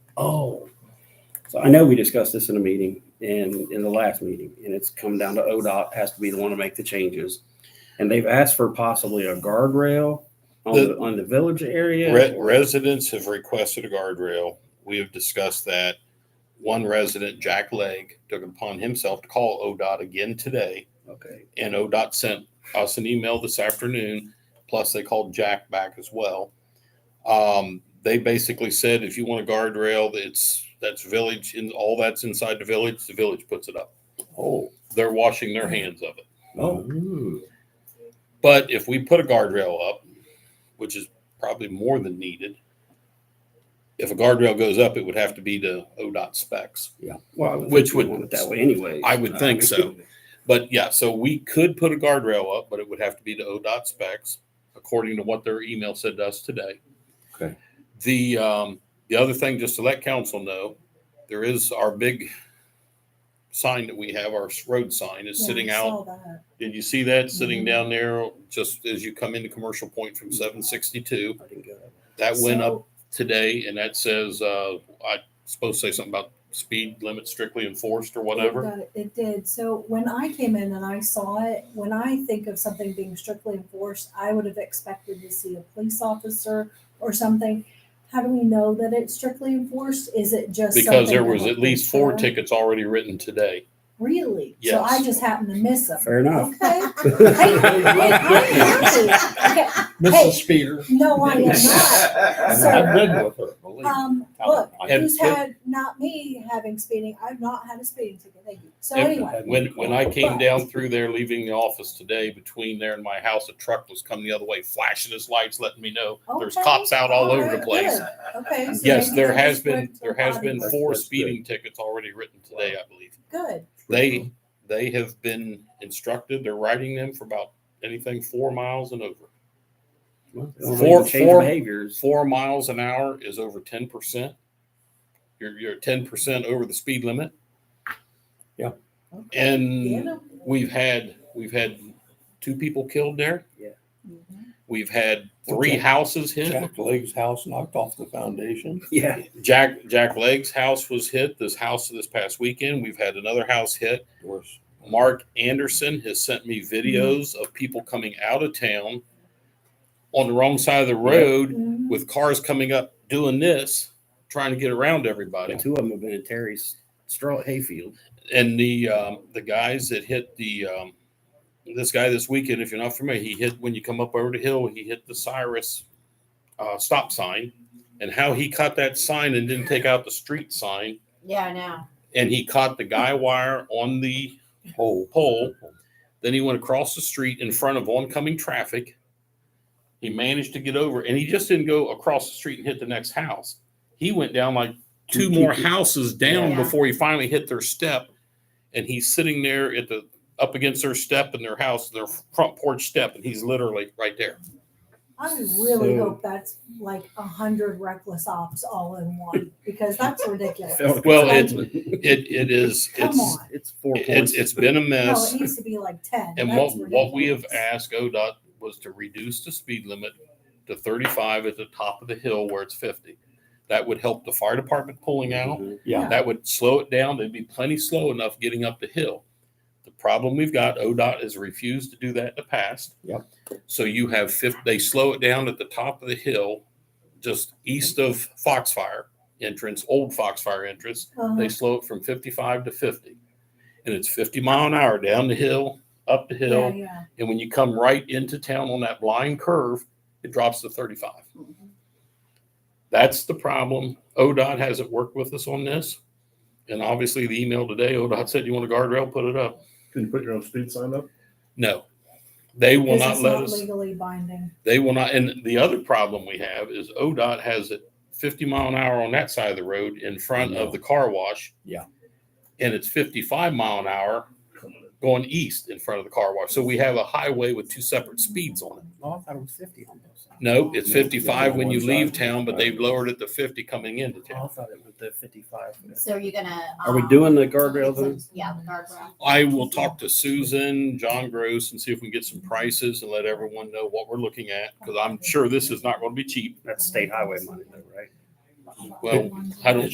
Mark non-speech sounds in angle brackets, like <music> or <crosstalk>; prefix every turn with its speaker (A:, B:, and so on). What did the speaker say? A: Oh. So I know we discussed this in a meeting and in the last meeting, and it's come down to ODOT has to be the one to make the changes. And they've asked for possibly a guardrail on the, on the village area.
B: Re- Residents have requested a guardrail. We have discussed that. One resident, Jack Legg, took it upon himself to call ODOT again today.
A: Okay,
B: And ODOT sent us an email this afternoon, plus they called Jack back as well. Um, they basically said, if you want a guardrail, it's, that's village, and all that's inside the village, the village puts it up.
A: oh,
B: They're washing their hands of it.
A: oh,
B: But if we put a guardrail up, which is probably more than needed, if a guardrail goes up, it would have to be to ODOT specs.
A: yeah. Well, I think
B: Which
A: we
B: would-
A: want it That way anyway. Uh,
B: I would think so. But yeah, so we could put a guardrail up, but it would have to be to ODOT specs, according to what their email said to us today.
C: Okay.
B: The, um, the other thing, just to let council know, there is our big sign that we have, our road sign is
D: Yeah,
B: sitting
D: I
B: out
D: saw that.
B: Did you see that sitting
D: Mhm.
B: down there just as you come into Commercial Point from seven sixty-two?
A: I didn't get it.
B: That went
D: So-
B: up today and that says, uh, I supposed to say something about speed limit strictly enforced or whatever.
D: It- uh, It did. So when I came in and I saw it, when I think of something being strictly enforced, I would have expected to see a police officer or something. How do we know that it's strictly enforced? Is it just?
B: Because there
D: something
B: was
D: that
B: at least four
D: happens, uh,
B: tickets already written today.
D: Really? So I
B: Yes.
D: just happened to miss them.
A: <laughs> Fair enough.
D: Okay. <laughs> Hey, hey, I'm happy. Okay. Hey.
E: Mrs. Speeder.
D: No, I
B: <laughs>
D: am not.
E: I've been with her, believe me.
D: Um,
E: I don't
D: look,
E: like
B: it.
D: who's had, not me having speeding, I've not had a speeding ticket, thank you. So
B: And
D: anyway,
B: When, when I came down through there, leaving the office today, between there and my house, a truck was coming the other way, flashing his lights, letting me know there's
D: Okay.
B: cops out all over the
D: Alright,
B: place.
D: good. okay. so
B: Yes,
D: maybe
B: there
D: they
B: has
D: just
B: been,
D: went to
B: there has
D: body
B: been
D: work.
B: four
C: That's good.
B: speeding tickets already written today, I believe.
D: Good,
B: they they have been instructed they're riding them for about anything four miles and over
A: Well,
D: Four-
A: we can change
B: four-
A: Behaviors. <laughs>
B: four miles an hour is over 10% you're, you're 10% over the speed limit
A: Yeah.
B: and
D: get 'em.
B: we've had we've had two people killed there
D: Mhm.
B: we've had
E: Well,
B: three
E: Jack-
B: houses hit
E: Jack Legg's house knocked off the foundation.
A: Yeah.
B: jack jack legg's house was hit this house this past weekend we've had another house hit
E: Worse.
B: Mark Anderson has sent me videos of people coming out of town on the wrong side of the road
D: Mhm.
B: with cars coming up doing this, trying to get around everybody.
A: But two of them have been in Terry's straw hayfield.
B: And the um, the guys that hit the um, this guy this weekend, if you're not familiar, he hit when you come up over the hill, he hit the Cyrus uh, stop sign, and how he caught that sign and didn't take out the street sign,
F: Yeah, I know.
B: and he caught the guy wire on the
E: Pole.
B: pole. Then he went across the street in front of oncoming traffic. He managed to get over and he just didn't go across the street and hit the next house. He went down like two more houses down
F: Yeah.
B: before he finally hit their step. And he's sitting there at the up against their step in their house, their front porch step, and he's literally right there.
D: I
A: So-
D: really hope that's like a hundred reckless ops all in one, because that's ridiculous.
B: <laughs> Well, it's it it is
D: Come
B: it's
D: on,
A: <laughs> It's four
B: it's
A: points.
B: it's been a
D: no,
B: mess.
D: it needs to be like ten.
B: And
D: That's
B: what, what we have
D: ridiculous.
B: asked ODOT was to reduce the speed limit to thirty-five at the top of the hill where it's fifty. That would help the fire department pulling out.
A: Mhm.
E: Yeah.
B: That would slow it down. They'd be plenty slow enough getting up the hill. The problem we've got, ODOT has refused to do that in the past.
E: Yep.
B: So you have fif, they slow it down at the top of the hill, just east of Foxfire entrance, old Foxfire entrance
D: Uh-huh.
B: they slow it from 55 to 50 and it's 50 mile an hour down the hill up the hill
D: Yeah, yeah.
B: and when you come right into town on that blind curve it drops to 35
D: Mm-hmm.
B: that's the problem odot hasn't worked with us on this and obviously the email today odot said you want a guardrail put it up
G: Can you put your own speed sign up?
B: no they will
D: Because
B: not
D: it's
B: let us
D: Legally binding.
B: they will not and the other problem we have is odot has it 50 mile an hour on that side of the road in front of the car wash
E: Yeah.
B: and it's 55 mile an hour going east in front of the car wash so we have a highway with two separate speeds on it
A: Oh, I thought it was fifty on both sides.
B: no it's
E: Yeah, yeah,
B: 55 when
E: on
B: you
E: one
B: leave
E: side.
B: town but they've lowered it to 50 coming into
A: Oh, I
B: town
A: thought it was the fifty-five.
F: So you're gonna.
A: Are we
F: um,
A: doing the guardrail then?
F: Yeah, the guardrail.
B: i will talk to susan john gross and see if we can get some prices and let everyone know what we're looking at because i'm sure this is not going to be cheap
A: That's state highway money though, right?
B: well i don't